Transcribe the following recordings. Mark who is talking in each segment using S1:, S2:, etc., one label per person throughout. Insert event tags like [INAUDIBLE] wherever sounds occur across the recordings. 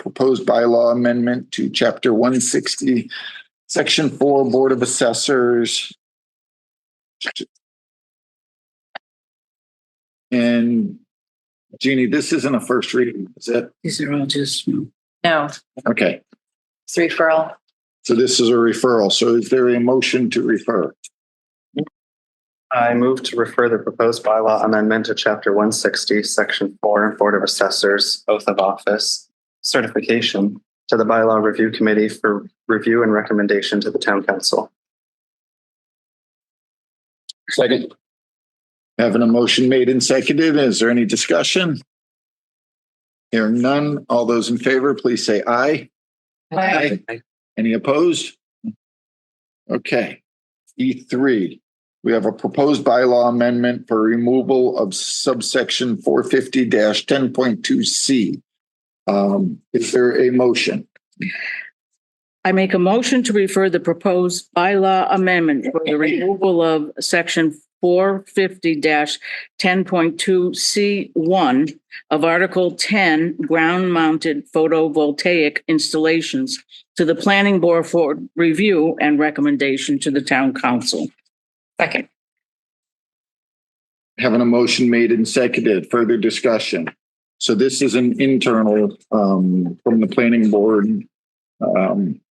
S1: proposed bylaw amendment to chapter one sixty, section four, Board of Assessors. And Jeannie, this isn't a first reading, is it?
S2: These are all just
S3: No,
S1: Okay,
S3: it's referral.
S1: so this is a referral. So is there a motion to refer?
S4: I move to refer the proposed bylaw amendment to chapter one sixty, section four, Board of Assessors, oath of office, certification to the bylaw review committee for review and recommendation to the town council.
S1: Second. Having a motion made and seconded, is there any discussion? Hearing none, all those in favor, please say aye.
S3: Aye.
S1: Any opposed? Okay. E3, we have a proposed bylaw amendment for removal of subsection 450-10.2C. Um, Is there a motion?
S2: I make a motion to refer the proposed bylaw amendment for the removal of section four fifty ten point two C one of Article ten, ground mounted photovoltaic installations to the planning board for review and recommendation to the town council.
S3: Second.
S1: Having a motion made and seconded, further discussion. So this is an internal um, from the planning board um,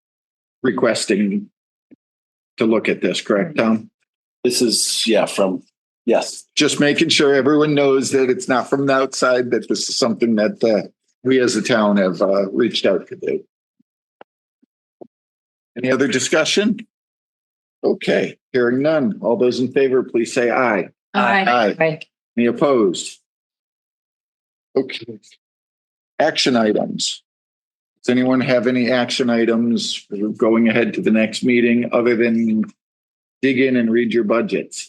S1: requesting to look at this, correct, Tom?
S5: This is, yeah, from, yes,
S1: just making sure everyone knows that it's not from the outside, that this is something that uh, we as a town have uh, reached out to do. Any other discussion? Okay, hearing none. All those in favor, please say aye. Aye. Any opposed? Okay. Action items. Does anyone have any action items going ahead to the next meeting other than dig in and read your budgets? [LAUGHS]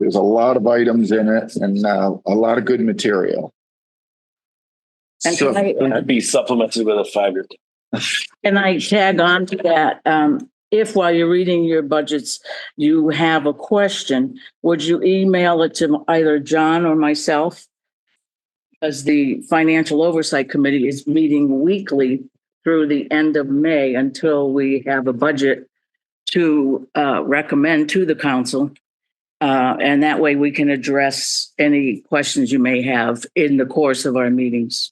S1: There's a lot of items in it and uh, a lot of good material.
S2: And
S1: So-
S2: tonight-
S5: that'd be supplemented with a five-year.
S2: And I tag on to that, um, if while you're reading your budgets, you have a question, would you email it to either John or myself? Because the Financial Oversight Committee is meeting weekly through the end of May until we have a budget to, uh, recommend to the council. Uh, and that way we can address any questions you may have in the course of our meetings.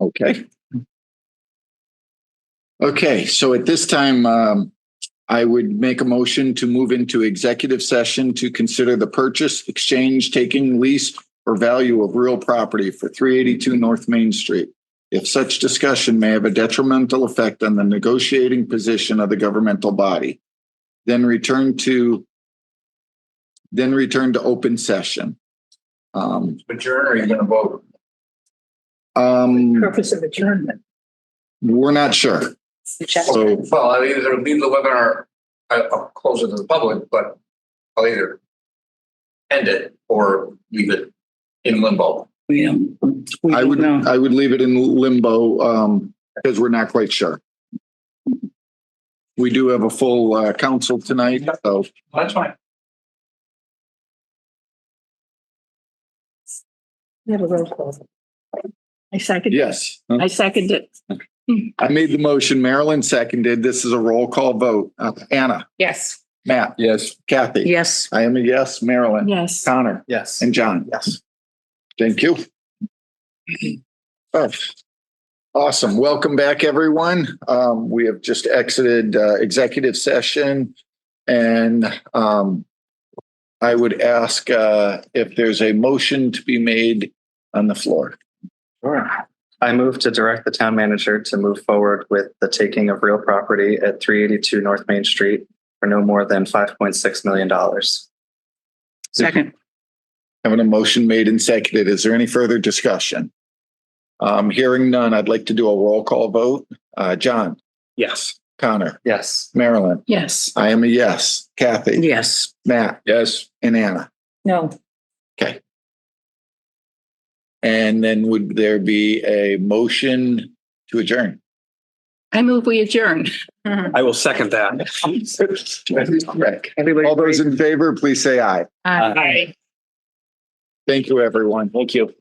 S1: Okay. Okay, so at this time, um, I would make a motion to move into executive session to consider the purchase, exchange, taking, lease, or value of real property for three eighty-two North Main Street. If such discussion may have a detrimental effect on the negotiating position of the governmental body, then return to then return to open session. Um,
S5: Adjourn, are you gonna vote?
S1: um,
S2: Purpose of adjournment.
S1: we're not sure, so.
S6: Well, I'll either leave the webinar, I- I'll close it to the public, but I'll either end it or leave it in limbo.
S2: We don't. we
S1: I
S2: don't
S1: would,
S2: know.
S1: I would leave it in limbo, um, because we're not quite sure. We do have a full, uh, council tonight, so,
S6: That's fine.
S7: I second,
S1: yes.
S7: I second it.
S1: I made the motion, Marilyn seconded, this is a roll call vote. Uh, Anna,
S3: Yes.
S1: Matt. Yes. Kathy.
S2: Yes.
S1: I am a yes, Marilyn,
S7: Yes.
S1: Connor,
S4: Yes.
S1: and John.
S4: Yes.
S1: Thank you. Oh, Awesome. Welcome back, everyone. Um, we have just exited uh, executive session and um, I would ask uh, if there's a motion to be made on the floor.
S4: I move to direct the town manager to move forward with the taking of real property at three eighty-two North Main Street for no more than five point six million dollars.
S2: Second.
S1: Having a motion made and seconded. Is there any further discussion? Um, hearing none, I'd like to do a roll call vote. Uh, John,
S5: Yes.
S1: Connor,
S4: Yes.
S1: Marilyn,
S7: Yes.
S1: I am a yes. Kathy,
S2: Yes.
S1: Matt,
S5: Yes.
S1: and Anna.
S7: No.
S1: And then would there be a motion to adjourn?
S7: I move we adjourn.
S5: I will second that.
S1: Correct.
S2: Everybody
S1: All those in favor, please say aye.
S7: Aye.
S1: Thank you, everyone.
S5: Thank you.